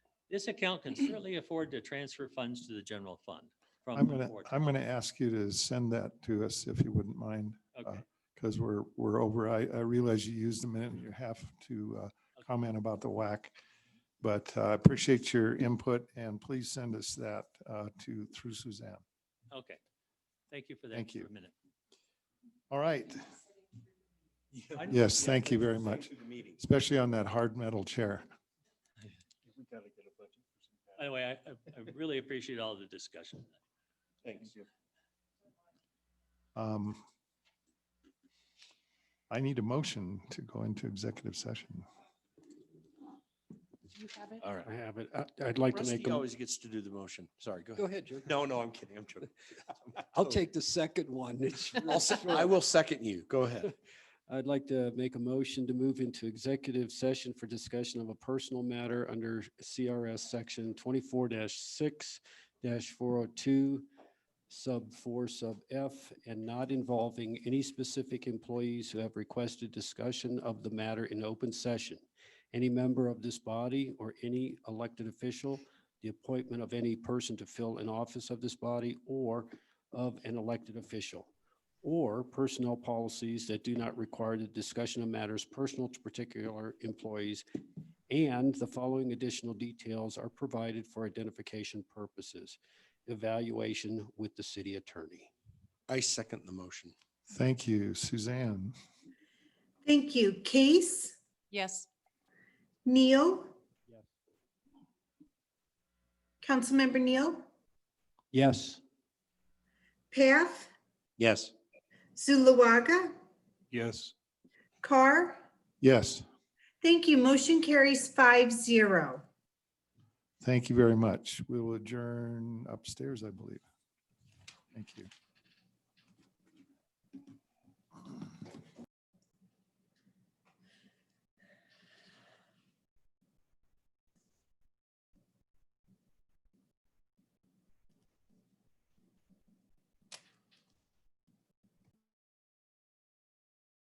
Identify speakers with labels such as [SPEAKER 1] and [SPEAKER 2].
[SPEAKER 1] This account can certainly afford to transfer funds to the general fund from.
[SPEAKER 2] I'm
[SPEAKER 1] the
[SPEAKER 2] gonna,
[SPEAKER 1] board.
[SPEAKER 2] I'm gonna ask you to send that to us if you wouldn't mind,
[SPEAKER 1] Okay,
[SPEAKER 2] because we're, we're over. I, I realize you used a minute and a half to uh, comment about the WAC. But uh, I appreciate your input and please send us that uh, to, through Suzanne.
[SPEAKER 1] okay. Thank you for that.
[SPEAKER 2] Thank
[SPEAKER 1] for a
[SPEAKER 2] you.
[SPEAKER 1] minute.
[SPEAKER 2] All right,
[SPEAKER 1] I know.
[SPEAKER 2] Yes, thank you very much. especially on that hard metal chair.
[SPEAKER 1] By the way, I, I I really appreciate all the discussion.
[SPEAKER 3] Thanks.
[SPEAKER 2] Um, I need a motion to go into executive session.
[SPEAKER 4] You have it?
[SPEAKER 3] All right.
[SPEAKER 5] I have it. I- I'd like to make,
[SPEAKER 3] Rusty
[SPEAKER 5] a-
[SPEAKER 3] always gets to do the motion. Sorry, go
[SPEAKER 5] go
[SPEAKER 3] ahead.
[SPEAKER 5] ahead, Joe.
[SPEAKER 3] No, no, I'm kidding. I'm joking.
[SPEAKER 5] I'll take the second one. It's real
[SPEAKER 3] I'll se- I
[SPEAKER 5] short.
[SPEAKER 3] will second you. Go ahead.
[SPEAKER 5] I'd like to make a motion to move into executive session for discussion of a personal matter under CRS Section twenty-four six four oh two, sub four, sub F, and not involving any specific employees who have requested discussion of the matter in open session. Any member of this body or any elected official, the appointment of any person to fill an office of this body or of an elected official or personnel policies that do not require the discussion of matters personal to particular employees. And the following additional details are provided for identification purposes. Evaluation with the city attorney.
[SPEAKER 3] I second the motion.
[SPEAKER 2] Thank you, Suzanne.
[SPEAKER 6] Thank you. Case,
[SPEAKER 4] Yes.
[SPEAKER 6] Neil?
[SPEAKER 5] Yes.
[SPEAKER 6] Councilmember Neil,
[SPEAKER 5] Yes.
[SPEAKER 6] Path,
[SPEAKER 3] Yes.
[SPEAKER 6] Zulawaga,
[SPEAKER 3] Yes.
[SPEAKER 6] Carr.
[SPEAKER 2] Yes,
[SPEAKER 6] Thank you. Motion carries five zero.
[SPEAKER 2] thank you very much. We will adjourn upstairs, I believe. Thank you.